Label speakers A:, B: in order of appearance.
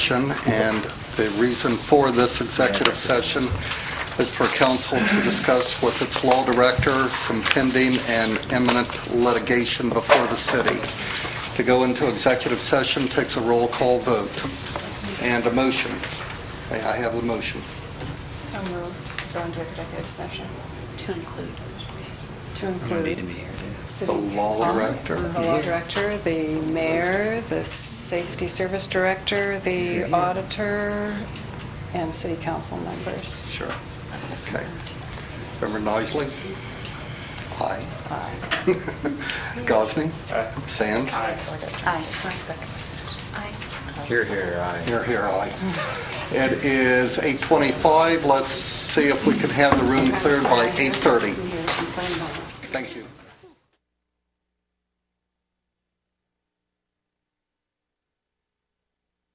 A: session, and the reason for this executive session is for council to discuss with its law director some pending and imminent litigation before the city. To go into executive session takes a roll call vote and a motion. May I have the motion?
B: So moved to go into executive session
C: To include.
B: to
D: need to be
B: include
D: here.
B: city...
A: The law
B: Um,
A: director.
B: The law director, the mayor, the safety service director,
D: Here,
B: the
D: here.
B: auditor, and city council members.
A: Sure. Okay. Member Noisley? Aye.
B: Aye.
A: Gosney?
E: Aye.
A: Sands?
C: Aye.
D: Here, here, aye.
A: Here, here, aye. It is 8:25. Let's see if we can have the room cleared by 8:30.